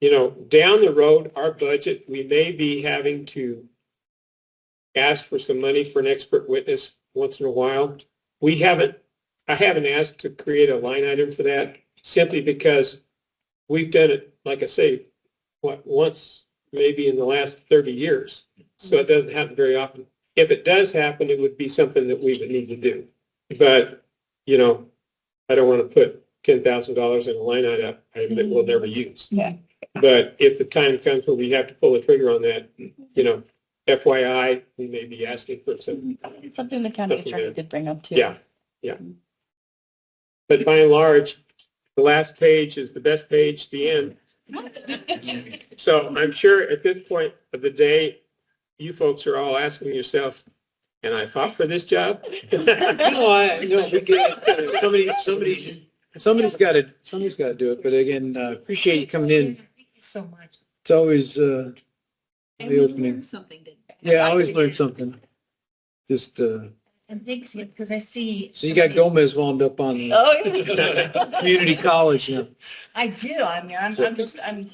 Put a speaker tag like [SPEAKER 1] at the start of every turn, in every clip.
[SPEAKER 1] you know, down the road, our budget, we may be having to ask for some money for an expert witness once in a while. We haven't, I haven't asked to create a line item for that simply because we've done it, like I say, what, once, maybe in the last 30 years. So it doesn't happen very often. If it does happen, it would be something that we would need to do. But, you know, I don't want to put $10,000 in a line item that we'll never use.
[SPEAKER 2] Yeah.
[SPEAKER 1] But if the time comes when we have to pull the trigger on that, you know, FYI, we may be asking for some,
[SPEAKER 3] Mm-hmm.
[SPEAKER 2] Something the county attorney did bring up too.
[SPEAKER 1] yeah, yeah. But by and large, the last page is the best page, the end. So I'm sure at this point of the day, you folks are all asking yourself, and I fought for this job?
[SPEAKER 3] No, I, no, we get it. Somebody, somebody, somebody's got to, somebody's got to do it. But again, uh, appreciate you coming in.
[SPEAKER 2] Thank you so much.
[SPEAKER 3] It's always, uh,
[SPEAKER 4] And
[SPEAKER 3] The
[SPEAKER 4] we
[SPEAKER 3] opening.
[SPEAKER 4] learned something, didn't we?
[SPEAKER 3] yeah, I always learn something. Just, uh,
[SPEAKER 2] And thanks, because I see.
[SPEAKER 3] so you got Gomez wound up on the
[SPEAKER 2] Oh, yeah.
[SPEAKER 3] community college now.
[SPEAKER 2] I do. I mean, I'm,
[SPEAKER 3] So-
[SPEAKER 2] I'm just, I'm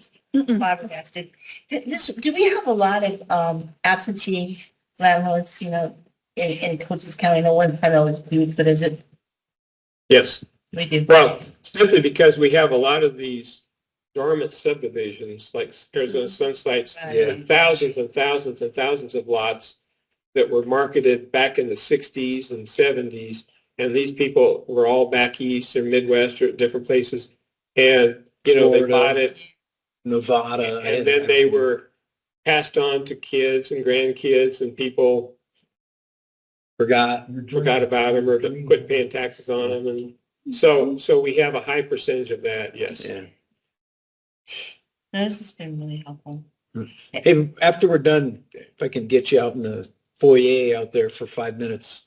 [SPEAKER 2] flabbergasted. Th- This, do we have a lot of um, absentee landlords, you know, in, in Cochise County? No one I know is huge, but is it,
[SPEAKER 1] Yes.
[SPEAKER 2] we do.
[SPEAKER 1] Well, simply because we have a lot of these dormant subdivisions, like Arizona Sunsites,
[SPEAKER 3] Yeah.
[SPEAKER 1] and thousands and thousands and thousands of lots that were marketed back in the 60s and 70s. And these people were all back east or Midwest or different places. And, you know, they
[SPEAKER 3] Florida. uh,
[SPEAKER 1] bought it
[SPEAKER 3] Nevada.
[SPEAKER 1] and then they were passed on to kids and grandkids and people
[SPEAKER 3] Forgot.
[SPEAKER 1] forgot about them or quit paying taxes on them. And so, so we have a high percentage of that, yes.
[SPEAKER 3] Yeah.
[SPEAKER 2] No, This has been really helpful.
[SPEAKER 3] Hey, after we're done, if I can get you out in the foyer out there for five minutes,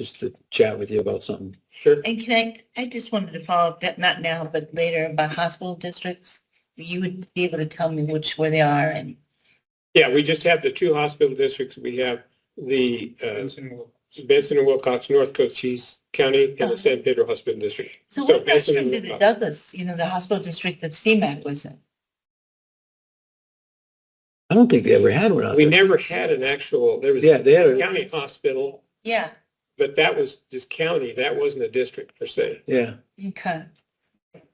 [SPEAKER 3] just to chat with you about something.
[SPEAKER 1] Sure.
[SPEAKER 2] And can I, I just wanted to follow up, that not now, but later, about hospital districts. You would be able to tell me which, where they are and.
[SPEAKER 1] Yeah, we just have the two hospital districts. We have the uh, Benson and Wilcox, North Cochise County, and the San Pedro Hospital District.
[SPEAKER 2] So
[SPEAKER 1] So
[SPEAKER 2] what about
[SPEAKER 1] basically
[SPEAKER 2] from
[SPEAKER 1] we're
[SPEAKER 2] the
[SPEAKER 1] covered.
[SPEAKER 2] Douglas, you know, the hospital district that CMAC was in?
[SPEAKER 3] I don't think they ever had one out
[SPEAKER 1] We
[SPEAKER 3] there.
[SPEAKER 1] never had an actual, there was
[SPEAKER 3] Uh-huh. Yeah,
[SPEAKER 1] a
[SPEAKER 3] they had, a-
[SPEAKER 1] county hospital,
[SPEAKER 2] Yeah,
[SPEAKER 1] but that was just county. That wasn't a district per se.
[SPEAKER 3] yeah.
[SPEAKER 2] okay.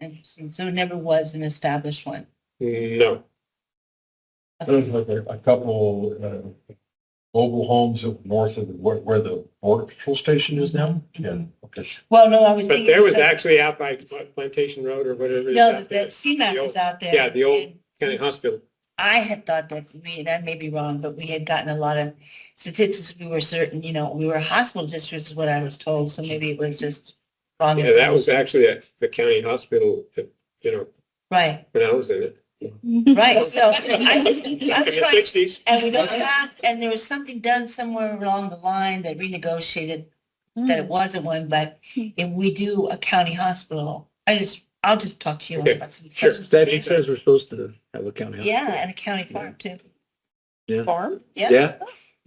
[SPEAKER 2] Interesting. So it never was an established one.
[SPEAKER 1] No.
[SPEAKER 5] There's like a, a couple, uh, mobile homes up north of where, where the border patrol station is now.
[SPEAKER 3] Mm-hmm.
[SPEAKER 5] Yeah, okay.
[SPEAKER 2] Well, no, I was
[SPEAKER 1] But
[SPEAKER 2] thinking.
[SPEAKER 1] there was
[SPEAKER 2] of-
[SPEAKER 1] actually out by Plantation Road or whatever. it is
[SPEAKER 2] No,
[SPEAKER 1] out
[SPEAKER 2] that
[SPEAKER 1] there.
[SPEAKER 2] CMAC
[SPEAKER 1] The
[SPEAKER 2] was out there.
[SPEAKER 1] yeah, the old-
[SPEAKER 2] and
[SPEAKER 1] County Hospital.
[SPEAKER 2] I had thought that, we, and I may be wrong, but we had gotten a lot of statistics. We were certain, you know, we were hospital districts is what I was told, so maybe it was just wrong.
[SPEAKER 3] Um,
[SPEAKER 1] Yeah, that was actually at the county hospital, you know,
[SPEAKER 2] Right,
[SPEAKER 1] when I was in it.
[SPEAKER 2] right. So I was, I'm
[SPEAKER 1] Back in the
[SPEAKER 2] trying,
[SPEAKER 1] sixties.
[SPEAKER 2] And we don't have, and there was something done somewhere along the line that renegotiated that it wasn't one, but if we do a county hospital, I just, I'll just talk to you
[SPEAKER 1] Okay,
[SPEAKER 2] about some
[SPEAKER 1] sure.
[SPEAKER 2] questions.
[SPEAKER 3] Statute says we're supposed to have a county. house.
[SPEAKER 2] Yeah, and a county farm too.
[SPEAKER 3] Yeah.
[SPEAKER 2] Farm? Yeah,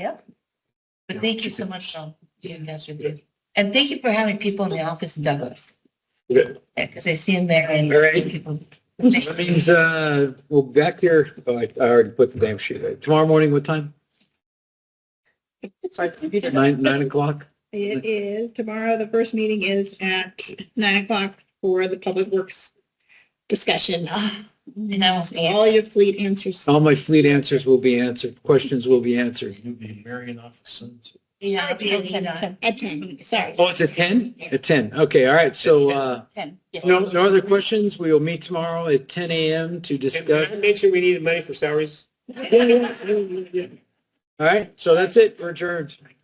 [SPEAKER 3] Yeah,
[SPEAKER 2] but thank you so much for doing that review. And thank you for having people in the office in Douglas,
[SPEAKER 1] Yeah.
[SPEAKER 2] because I see them there and
[SPEAKER 3] All right.
[SPEAKER 2] people.
[SPEAKER 3] that means, uh, we'll be back here, oh, I I already put the damn sheet out. Tomorrow morning, what time?
[SPEAKER 4] Sorry, computer.
[SPEAKER 3] Nine, nine o'clock?
[SPEAKER 4] It is tomorrow. The first meeting is at nine o'clock for the public works discussion.
[SPEAKER 2] And I was,
[SPEAKER 4] All your fleet answers.
[SPEAKER 3] All my fleet answers will be answered, questions will be answered.
[SPEAKER 5] You'd be marrying off a son.
[SPEAKER 2] yeah, I'll be
[SPEAKER 4] Ten,
[SPEAKER 2] on-
[SPEAKER 4] At ten, sorry.
[SPEAKER 3] Oh, it's at ten? At ten, okay, all right, so, uh,
[SPEAKER 2] ten, yes.
[SPEAKER 3] no, no other questions? We will meet tomorrow at ten AM to
[SPEAKER 1] And did
[SPEAKER 3] discuss.
[SPEAKER 1] I mention we needed money for salaries?
[SPEAKER 3] All right, so that's it, we're adjourned.